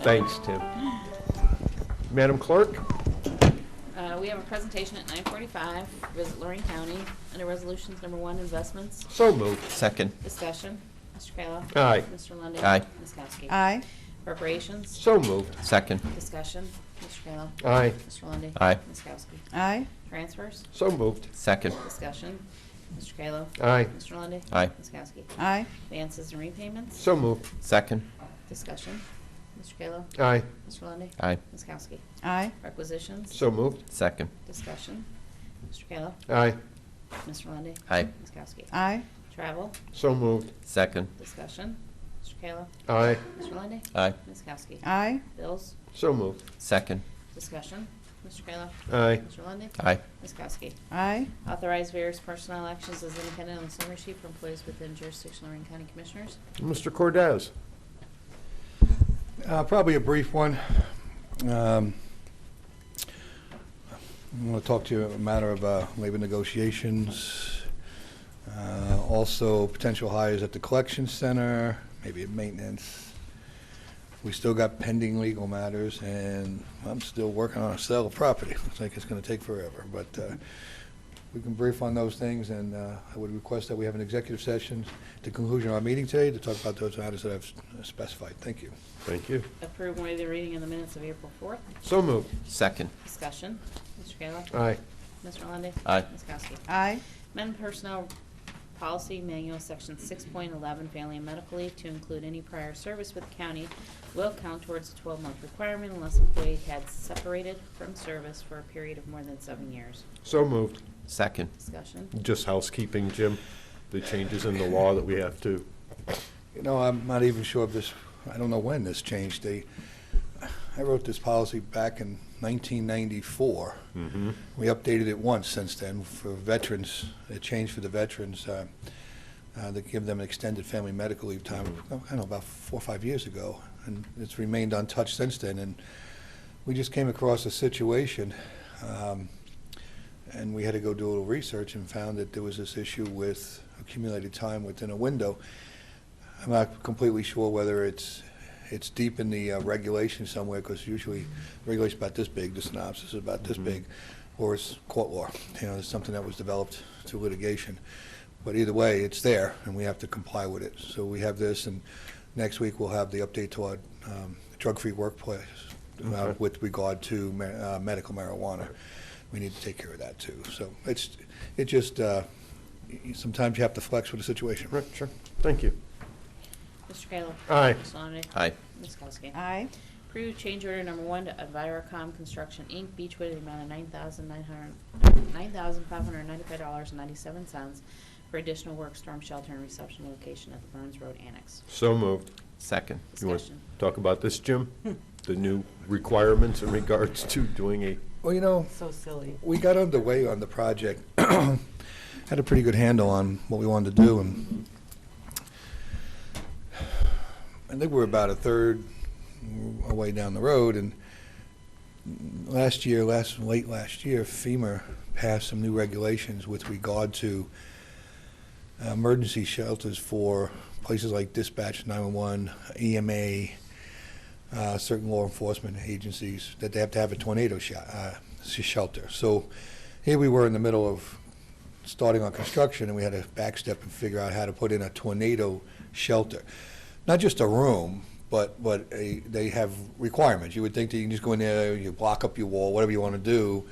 Thanks, Tim. Madam Clerk? Uh, we have a presentation at nine forty-five, visit Lorraine County, under resolutions number one, investments, So moved. Second. discussion, Mr. Kayla. Aye. Mr. Lundey. Aye. Ms. Kowski. Aye. Appropriations, So moved. Second. discussion, Mr. Kayla. Aye. Mr. Lundey. Aye. Ms. Kowski. Aye. Transfers, So moved. Second. discussion, Mr. Kayla. Aye. Mr. Lundey. Aye. Ms. Kowski. Aye. Advances and repayments, So moved. Second. discussion, Mr. Kayla. Aye. Mr. Lundey. Aye. Ms. Kowski. Aye. Requisitions, So moved. Second. discussion, Mr. Kayla. Aye. Mr. Lundey. Aye. Ms. Kowski. Aye. Travel, So moved. Second. Discussion, Mr. Kayla. Aye. Mr. Lundey. Aye. Ms. Kowski. Aye. Bills, So moved. Second. discussion, Mr. Kayla. Aye. Mr. Lundey. Aye. Ms. Kowski. Aye. Authorize various personnel actions as independent on the summary sheet for employees within jurisdiction of Lorraine County Commissioners. Mr. Cordez? Uh, Probably a brief one. Um, I want to talk to you a matter of uh, labor negotiations, uh, also potential hires at the collection center, maybe at maintenance. We still got pending legal matters, and I'm still working on a sale of property. Looks like it's going to take forever, but uh, we can brief on those things, and uh, I would request that we have an executive session at the conclusion of our meeting today to talk about those matters that I've specified. Thank you. Thank you. Approve and waive the reading of the minutes of April fourth. So moved. Second. Discussion, Mr. Kayla. Aye. Mr. Lundey. Aye. Ms. Kowski. Aye. Amend Personnel Policy Manual, Section 6.11, Family and Medical Leave to include any prior service with the county will count towards the 12-month requirement unless employee had separated from service for a period of more than seven years. So moved. Second. Discussion. Just housekeeping, Jim. The changes in the law that we have to. You know, I'm not even sure if this, I don't know when this changed. They, I wrote this policy back in 1994. Mm-hmm. We updated it once since then for veterans, it changed for the veterans, uh, uh, to give them an extended family medical leave time, I don't know, about four or five years ago. And it's remained untouched since then. And we just came across a situation, um, and we had to go do a little research and found that there was this issue with accumulated time within a window. I'm not completely sure whether it's, it's deep in the uh, regulation somewhere, because usually regulation's about this big, the synopsis is about this Mhm. big, or it's court law. You know, it's something that was developed through litigation. But either way, it's there, and we have to comply with it. So we have this, and next week we'll have the update to our um, drug-free workplace uh, Okay. with regard to ma- uh, medical marijuana. We need to take care of that, too. So it's, it just, uh, y- sometimes you have to flex with the situation. Right, sure. Thank you. Mr. Kayla. Aye. Mr. Lundey. Aye. Ms. Kowski. Aye. Approve change order number one to Envirocom Construction, Inc., Beechwood, in the amount of nine thousand nine hundred, nine thousand five hundred ninety-five dollars and ninety-seven cents for additional work storm shelter and reception location at the Burns Road Annex. So moved. Second. You want Discussion. to talk about this, Jim? The new requirements in regards to doing a, Well, you know, So silly. we got underway on the project, had a pretty good handle on what we wanted to do, and I think we're about a third away down the road, and last year, last, late last year, FEMA passed some new regulations with regard to uh, emergency shelters for places like dispatch, 911, EMA, uh, certain law enforcement agencies that they have to have a tornado sho- uh, s- shelter. So here we were in the middle of starting on construction, and we had to backstep and figure out how to put in a tornado shelter. Not just a room, but, but a, they have requirements. You would think that you can just go in there, you block up your wall, whatever you want to do.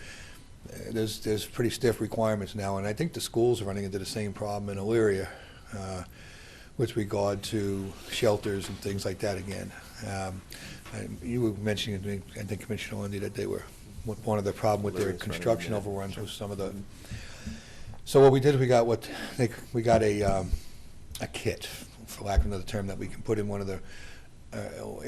Uh, There's, there's pretty stiff requirements now, and I think the schools are running into the same problem in Elyria uh, with regard to shelters and things like that again. Um, I- You were mentioning, I think- I think Commissioner Lundy, that they were, what- one of the problem with their Elyria's running, construction yeah. overruns was some of the, so what we did, we got what, they- we got a, um, a kit, for lack of another term, that we can put in one of the uh,